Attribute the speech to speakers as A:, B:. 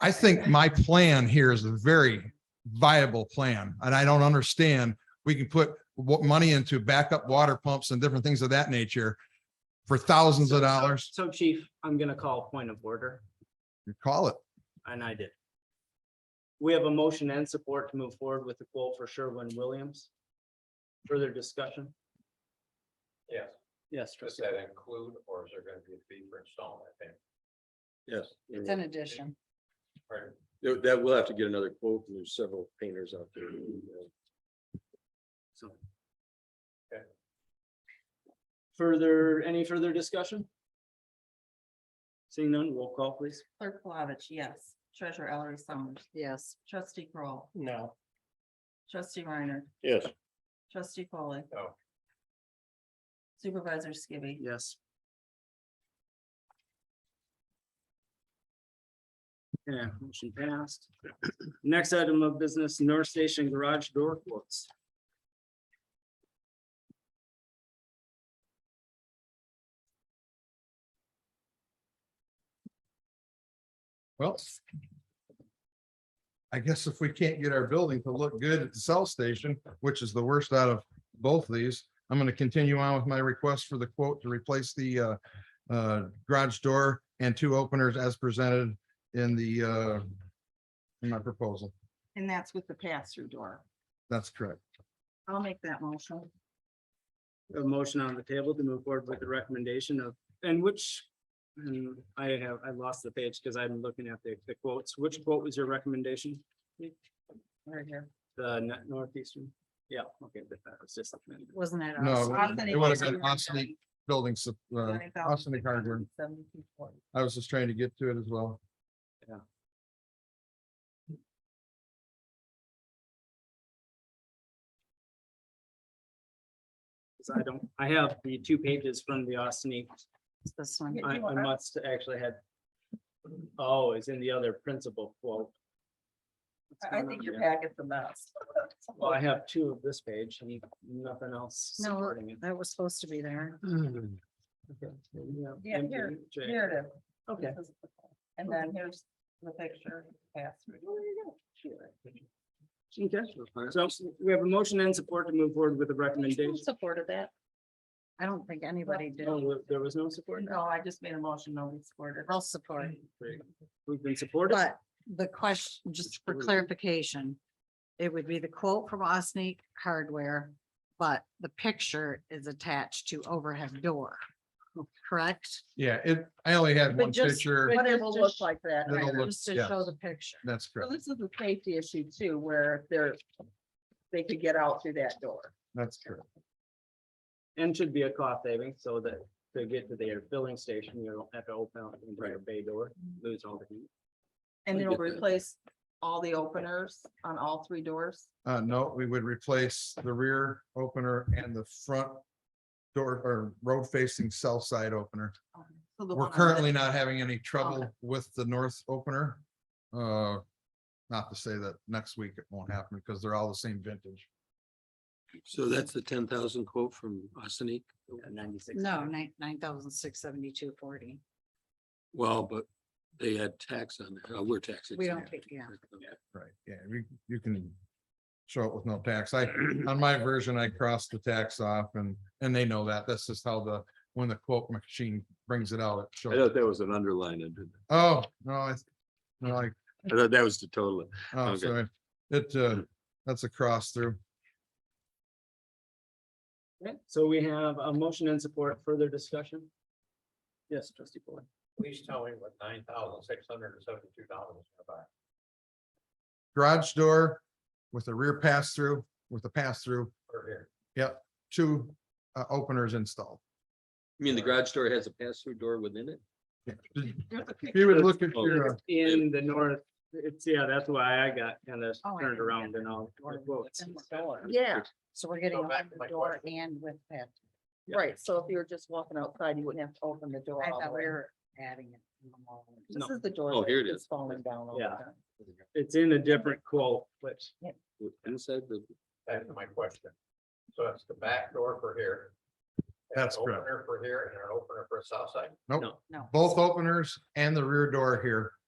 A: I think my plan here is a very viable plan, and I don't understand. We can put what money into backup water pumps and different things of that nature for thousands of
B: So- so-
A: dollars.
B: So chief, I'm gonna call point of order,
A: Call it.
B: and I did. We have a motion and support to move forward with the quote for Sherwin Williams. Further discussion?
C: Yes,
B: Yes,
C: does
B: trustee.
C: that include, or is there gonna be a fee for installing that thing?
D: Yes, and
E: It's an addition.
C: Or-
D: that that will have to get another quote, and there's several painters out there.
B: So. Further, any further discussion? Seeing none, roll call please.
F: Clerk Plavich, yes. Treasurer Ellery Summers.
E: Yes.
F: Trustee Kroll,
B: No.
F: Trustee Reiner.
D: Yes.
F: Trustee Foley,
C: No.
F: Supervisor Skibby.
B: Yes. Yeah, motion passed. Next item of business, North Station Garage Door quotes.
A: Well. I guess if we can't get our building to look good at the cell station, which is the worst out of both of these, I'm gonna continue on with my request for the quote to replace the uh. Uh, garage door and two openers as presented in the uh. In my proposal.
F: And that's with the pass-through door.
A: That's correct.
F: I'll make that motion.
B: A motion on the table to move forward with the recommendation of, and which. And I have, I lost the page because I'm looking at the the quotes. Which quote was your recommendation?
F: Right here.
B: The Nor- northeastern? Yeah, okay, but that was just.
F: Wasn't it?
A: No,
F: us?
A: it
F: Austin
A: would've been
F: Equipment
A: Austin- Building, sup- uh,
F: Company,
A: Austin and Hardware.
F: 20,672.40.
A: I was just trying to get to it as well.
B: So I don't, I have the two pages from the Austin. E
F: It's This one.
B: I, I must actually had. Oh, it's in the other principal quote.
F: I I think your packet's the best.
B: Well, I have two of this page and nothing else
F: No,
B: supporting it.
F: That was supposed to be there.
B: Okay,
F: Yeah, here,
B: MJ.
F: Here it is.
B: Okay.
F: This is the one. And then here's the picture. pass-through. There you go. Cute.
B: Okay, so we have a motion and support to move forward with the
F: Who
B: recommendation.
F: supported that? I don't think anybody did.
B: No, There was no support.
F: No, I just made a motion, nobody supported. I'll support.
B: Great. We've been supported.
E: But the question, just for clarification, it would be the quote from Osneek Hardware, but the picture is attached to overhead door, correct?
A: Yeah, it, I only had
F: But
A: one
F: just-
A: picture.
F: but
E: It'll look
F: like that.
A: It'll look-
E: Just to
A: yes.
E: show the picture.
A: That's
F: So
A: correct.
F: this is a safety issue too, where they're, they could get out through that door.
A: That's correct.
B: And should be a cost saving so that to get to their filling station, you don't have to open up your bay door, lose all the heat.
F: And
B: We
F: it'll
B: get that.
F: replace all the openers on all three doors.
A: Uh, no, we would replace the rear opener and the front door or road facing south side opener.
F: So
A: We're
F: the one on the-
A: currently not having any trouble
F: Okay.
A: with the north opener. Uh, not to say that next week it won't happen because they're all the same vintage.
D: So that's the ten thousand quote from Austin.
B: at 96.
E: No, nine, nine thousand six seventy-two forty.
D: Well, but they had tax on it. Uh, We're taxing.
E: We don't, pay- yeah.
A: Right, yeah, you, you can show it with no tax. I, on my version, I crossed the tax off and, and they know that. That's just how the, when the quote machine brings it out, it
D: I
A: shows.
D: thought that was an underline under that.
A: Oh, no, I, no, I,
D: I thought that was the total.
A: oh,
D: Okay.
A: sorry. It, uh, that's a cross through.
B: Okay, So we have a motion and support, further discussion? Yes, trustee Paul.
C: Please tell me what nine thousand six hundred and seventy-two dollars is about.
A: Garage door with a rear pass through, with a pass through,
C: per here.
A: two, uh, openers installed.
D: You mean the garage door has a pass-through door within it?
A: Yeah. If you would look at
D: Oh.
A: your, uh,
B: In the north, it's, yeah, that's why I got kind of
E: Oh, I
B: turned
E: know.
B: around and all. the quotes.
F: Yeah,
E: So we're getting
C: Go back to
E: overhead
C: my
E: door and with that.
F: right. So if you were just walking outside, you wouldn't have to open the door.
E: I
F: all the
E: thought we
F: way.
E: were adding it.
B: No.
F: This is the door.
D: Oh,
F: that
D: here it
F: is
D: is.
F: Falling down. over
B: Yeah.
F: there.
B: It's in a different quote, which,
D: With- Inside the,
C: That's my question. So it's the back door for here. and an
A: That's correct.
C: Opener for here and an opener for the south side.
A: nope,
D: No.
E: No.
A: both openers and the rear door here